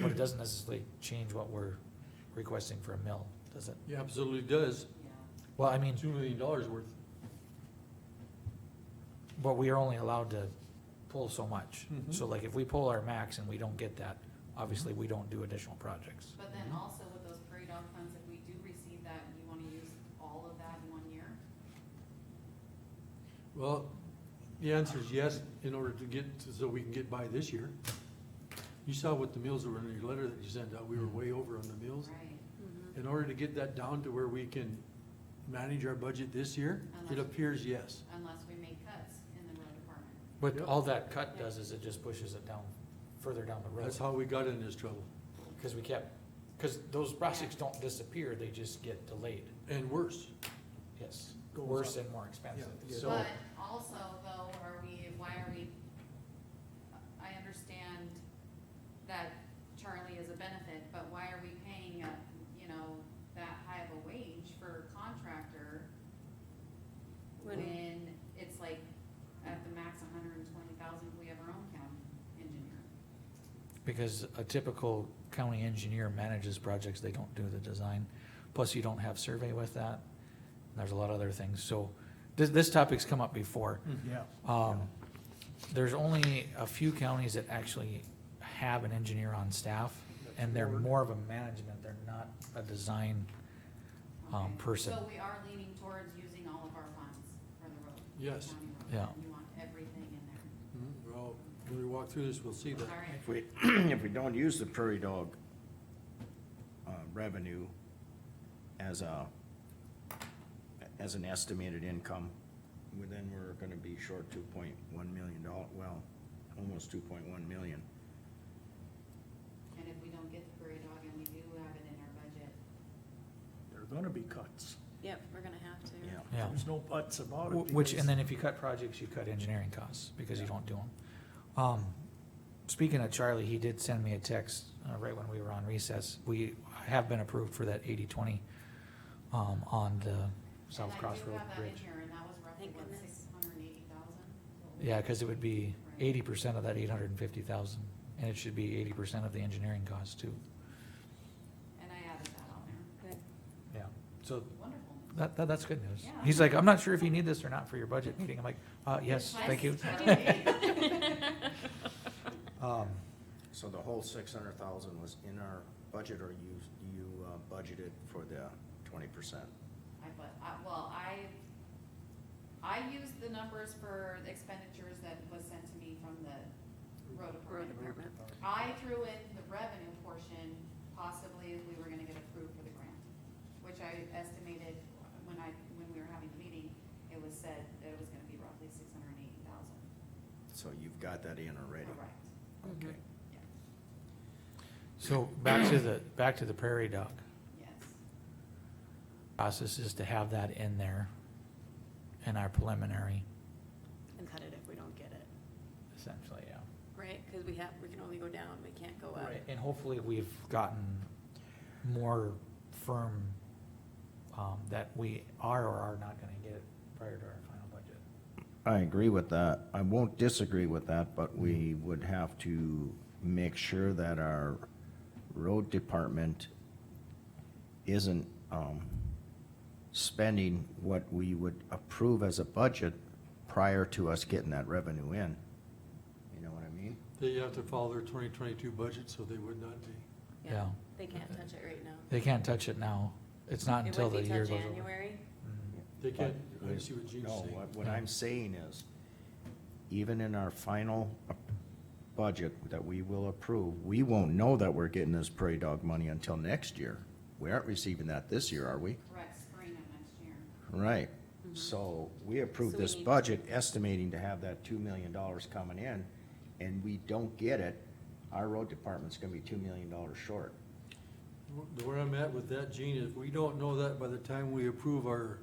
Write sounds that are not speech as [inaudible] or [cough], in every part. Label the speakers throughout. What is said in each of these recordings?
Speaker 1: doesn't necessarily change what we're requesting for a mill, does it?
Speaker 2: Yeah, absolutely does.
Speaker 1: Well, I mean,
Speaker 2: Two million dollars worth.
Speaker 1: but we are only allowed to pull so much.
Speaker 2: Mhm.
Speaker 1: So like if we pull our max and we don't get that, obviously we don't do additional projects.
Speaker 3: But then also with those prairie dog funds, if we do receive that, you wanna use all of that in one year?
Speaker 2: Well, the answer is yes, in order to get, so we can get by this year. You saw what the meals were in your letter that you sent out, we were way over on the meals.
Speaker 3: Right,
Speaker 2: In order to get that down to where we can manage our budget this year, it appears yes.
Speaker 3: unless we make cuts in the road department.
Speaker 1: But
Speaker 2: Yep.
Speaker 1: all that cut does is it just pushes it down, further down the road.
Speaker 2: That's how we got in this trouble,
Speaker 1: Cause we kept, cause those projects don't disappear, they just get delayed,
Speaker 2: and worse.
Speaker 1: yes.
Speaker 2: Goes
Speaker 1: Worse
Speaker 2: up.
Speaker 1: and more expensive,
Speaker 2: Yeah, yeah.
Speaker 1: so.
Speaker 3: But also though, are we, why are we, I understand that Charlie is a benefit, but why are we paying, a- you know, that high of a wage for a contractor
Speaker 4: When-
Speaker 3: when it's like at the max hundred and twenty thousand, we have our own county engineer?
Speaker 1: Because a typical county engineer manages projects, they don't do the design, plus you don't have survey with that. There's a lot of other things, so this, this topic's come up before.
Speaker 5: Yeah.
Speaker 1: Um, there's only a few counties that actually have an engineer on staff, and they're more of a management, they're not a design. Um,
Speaker 3: Okay.
Speaker 1: person.
Speaker 3: So we are leaning towards using all of our funds for the road. the
Speaker 2: Yes.
Speaker 3: county road.
Speaker 1: Yeah.
Speaker 3: You want everything in there.
Speaker 2: Mhm. Well, when we walk through this, we'll see that.
Speaker 3: All right.
Speaker 5: If we, [clears throat] if we don't use the prairie dog uh, revenue as a, as an estimated income, well, then we're gonna be short two point one million dollars. well, almost two point one million.
Speaker 3: And if we don't get the prairie dog and we do have it in our budget,
Speaker 6: There are gonna be cuts.
Speaker 4: Yep, we're gonna have to.
Speaker 5: Yeah.
Speaker 1: Yeah.
Speaker 6: There's no buts about
Speaker 1: Wh-
Speaker 6: it.
Speaker 1: Which,
Speaker 6: because-
Speaker 1: and then if you cut projects, you cut engineering costs, because you
Speaker 6: Yeah.
Speaker 1: don't do them. Um, speaking of Charlie, he did send me a text, uh, right when we were on recess, we have been approved for that eighty-twenty, um, on the South Cross Road
Speaker 3: And I do have that in
Speaker 1: Bridge.
Speaker 3: here, and that was roughly
Speaker 4: Thank
Speaker 3: what,
Speaker 4: goodness.
Speaker 3: six hundred and eighty thousand?
Speaker 1: Yeah, cause it would be
Speaker 3: Right.
Speaker 1: eighty percent of that eight hundred and fifty thousand, and it should be eighty percent of the engineering cost too.
Speaker 3: And I added that on there.
Speaker 4: Good.
Speaker 1: Yeah. So,
Speaker 3: Wonderful.
Speaker 1: that, that, that's good news.
Speaker 3: Yeah.
Speaker 1: He's like, I'm not sure if you need this or not for your budget meeting, I'm like, uh, yes,
Speaker 3: Yes,
Speaker 1: thank you. [laughs] Um,
Speaker 5: So the whole six hundred thousand was in our budget, or you, you uh, budgeted for the twenty percent?
Speaker 3: I, but, I, well, I, I used the numbers for the expenditures that was sent to me from the road
Speaker 4: Road
Speaker 3: department.
Speaker 4: department.
Speaker 3: I threw in the revenue portion, possibly if we were gonna get approved for the grant, which I estimated when I, when we were having the meeting, it was said that it was gonna be roughly six hundred and eighty thousand.
Speaker 5: So you've got that in already?
Speaker 3: Correct,
Speaker 5: Okay.
Speaker 3: yeah,
Speaker 1: So, back to the, back to the prairie dog.
Speaker 3: yes,
Speaker 1: process is to have that in there in our preliminary,
Speaker 4: And cut it if we don't get it,
Speaker 1: essentially, yeah.
Speaker 4: right? Cause we have, we can only go down, we can't go up.
Speaker 1: And hopefully we've gotten more firm, um, that we are or are not gonna get it prior to our final budget.
Speaker 5: I agree with that. I won't disagree with that, but we would have to make sure that our road department isn't, um, spending what we would approve as a budget prior to us getting that revenue in. You know what I mean?
Speaker 2: They have to follow their twenty twenty-two budget, so they would not be.
Speaker 1: Yeah.
Speaker 4: They can't touch it right now.
Speaker 1: They can't touch it now. It's not
Speaker 4: It
Speaker 1: until
Speaker 4: would
Speaker 1: the
Speaker 4: be
Speaker 1: year
Speaker 4: till
Speaker 1: goes over.
Speaker 4: January.
Speaker 1: Mhm.
Speaker 2: They can't,
Speaker 5: But-
Speaker 2: I see what Gene's
Speaker 5: No,
Speaker 2: saying.
Speaker 5: what- What I'm saying is, even in our final ap- budget that we will approve, we won't know that we're getting this prairie dog money until next year. We aren't receiving that this year, are we?
Speaker 3: correct, spring of next year.
Speaker 5: Right. So we approved
Speaker 4: Mm-hmm. So we
Speaker 5: this
Speaker 4: need-
Speaker 5: budget estimating to have that two million dollars coming in, and we don't get it, our road department's gonna be two million dollars short.
Speaker 2: Wh- Where I'm at with that, Gene, is we don't know that by the time we approve our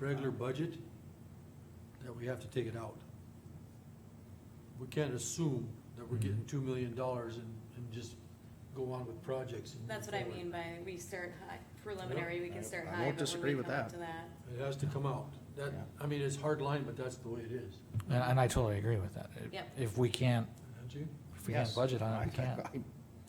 Speaker 2: regular budget, that we have to take it out. We can't assume that we're getting two million dollars and, and just go on with projects. and move
Speaker 4: That's what I
Speaker 2: forward.
Speaker 4: mean by we start high, preliminary, we
Speaker 5: I-
Speaker 4: can start
Speaker 5: I
Speaker 4: high,
Speaker 5: won't
Speaker 4: but when
Speaker 5: disagree
Speaker 4: we
Speaker 5: with
Speaker 4: come up
Speaker 5: that.
Speaker 4: to that.
Speaker 2: It has to come out. That,
Speaker 5: Yeah.
Speaker 2: I mean, it's hard line, but that's the way it is.
Speaker 1: And, and I totally agree with that.
Speaker 4: Yep.
Speaker 1: If we can't,
Speaker 2: Don't you?
Speaker 1: if we can't
Speaker 5: Yes.
Speaker 1: budget on it, we can't.
Speaker 5: [laughs] I-